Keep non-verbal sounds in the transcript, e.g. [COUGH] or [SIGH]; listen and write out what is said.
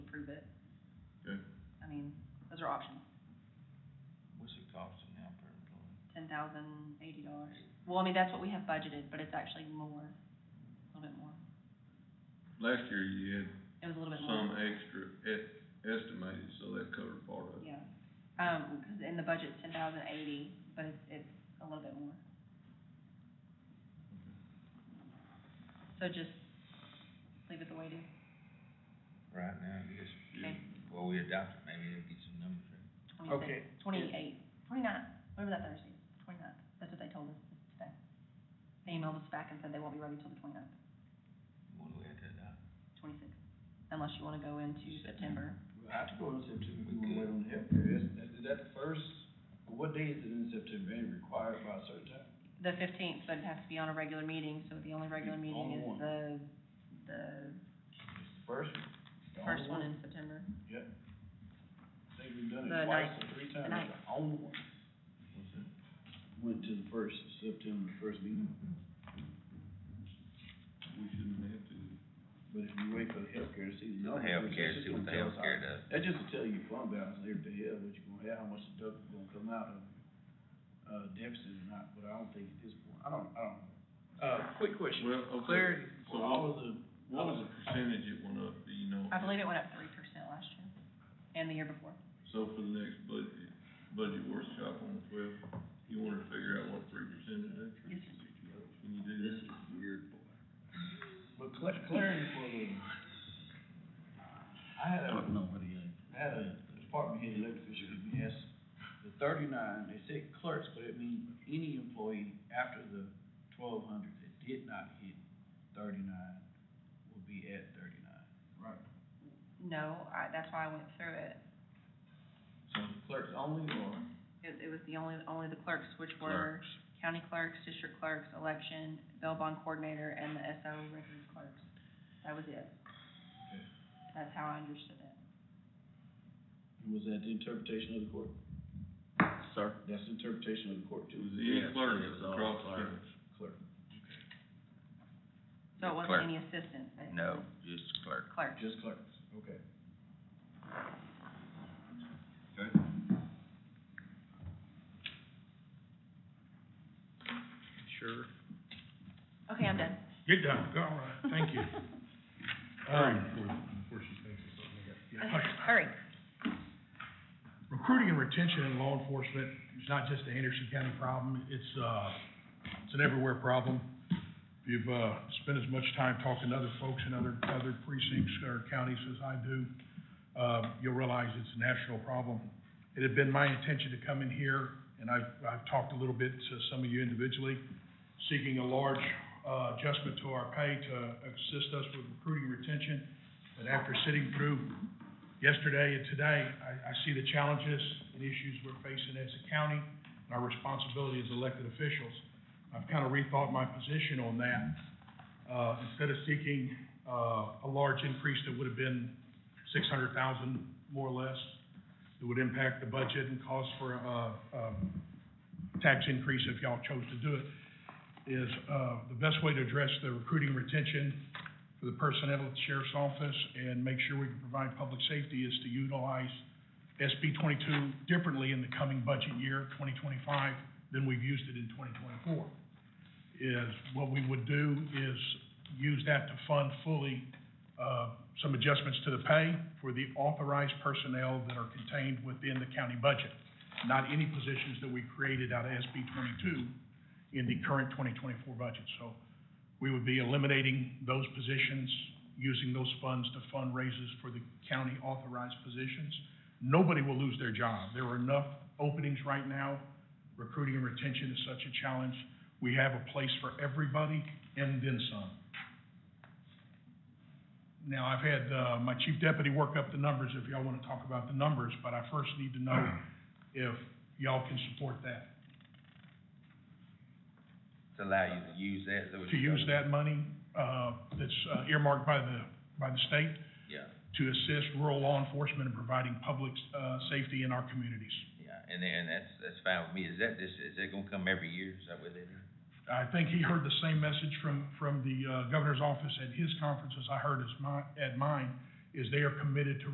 thousand eighty dollars. Well, I mean, that's what we have budgeted, but it's actually more, a little bit more. Last year you had It was a little bit more. some extra e- estimated, so that covered part of it. Yeah, um, cause in the budget's ten thousand eighty, but it's, it's a little bit more. So just leave it the way it is. right now, I guess, Yeah. well, we adopt it, maybe it'll get some numbers in. Okay. Twenty-eight, twenty-nine, whatever that Thursday, twenty-nine, that's what they told us today. They emailed us back and said they won't be ready till the twenty-ninth, What do we have to adopt? twenty-sixth, unless you wanna go into September. I have to go in September, we Good. will wait on the healthcare, is, is that the first, what day is it in September, ain't required by a certain time? The fifteenth, but it has to be on a regular meeting, so the only regular Only meeting is one. the, the It's the first one. the first only one in September. Yep. I think we've done The it twice ninth. or three The times, ninth. it's the only one. Went to the first, September first meeting, We shouldn't have to. but if you wait for the healthcare to see the. No healthcare, see what the healthcare does. That just to tell you fund balance, there to hell, what you gonna have, how much the deductible gonna come out of, uh, deficit or not, but I don't think at this point, I don't, I don't. Uh, quick question, Well, okay. clarity So for all what, of the, what was the percentage it went up, do you know? I believe it went up three percent last year, and the year before. So for the next budget, budget workshop on the twelfth, you wanna figure out what three percent is? Yes, Can you do that? Weird. but cla- clarity for the, I had a, know what he is. I had a department head elected official, he asked, the thirty-nine, they said clerks, but it means any employee after the twelve hundred that did not hit thirty-nine will be at thirty-nine. Right. No, I, that's why I went through it. So clerks only or? It, it was the only, only the clerks, which were Clerks. county clerks, district clerks, election, bail bond coordinator, and the SO records clerks. That was it. Okay. That's how I understood it. Was that the interpretation of the court? Sir? That's the interpretation of the court It too, was any Yes, clerk it was all across the clerks. county. clerk. So it Clerk. wasn't any assistants. it- No, just clerk. Clerk. Just clerks. Okay. Sure. Okay, I'm done. Get done, all right, thank you. [LAUGHS] Um, before- before she thinks of something, I got- yeah. Hurry. Recruiting and retention in law enforcement is not just a Henderson County problem, it's, uh, it's an everywhere problem. If you've, uh, spent as much time talking to other folks in other, other precincts or counties as I do, uh, you'll realize it's a national problem. It had been my intention to come in here, and I've, I've talked a little bit to some of you individually, seeking a large, uh, adjustment to our pay to assist us with recruiting and retention. But after sitting through yesterday and today, I, I see the challenges and issues we're facing as a county and our responsibility as elected officials. I've kind of rethought my position on that. Uh, instead of seeking, uh, a large increase that would have been six hundred thousand, more or less, that would impact the budget and cause for, uh, uh, tax increase if y'all chose to do it, is, uh, the best way to address the recruiting retention for the personnel at the sheriff's office and make sure we can provide public safety is to utilize SB twenty-two differently in the coming budget year, twenty twenty-five, than we've used it in twenty twenty-four. Is, what we would do is use that to fund fully, uh, some adjustments to the pay for the authorized personnel that are contained within the county budget, not any positions that we created out of SB twenty-two in the current twenty twenty-four budget. So we would be eliminating those positions, using those funds to fund raises for the county authorized positions. Nobody will lose their job. There are enough openings right now. Recruiting and retention is such a challenge. We have a place for everybody and then some. Now, I've had, uh, my chief deputy work up the numbers if y'all wanna talk about the numbers, but I first need to know if y'all can support that. To allow you to use that, is that what To you're use saying? that money, uh, that's uh, earmarked by the, by the state Yeah, to assist rural law enforcement in providing public, uh, safety in our communities. yeah, and then that's, that's fine with me. Is that, is, is that gonna come every year? Is that what it is? I think he heard the same message from, from the, uh, governor's office at his conference as I heard as my, at mine, is they are committed to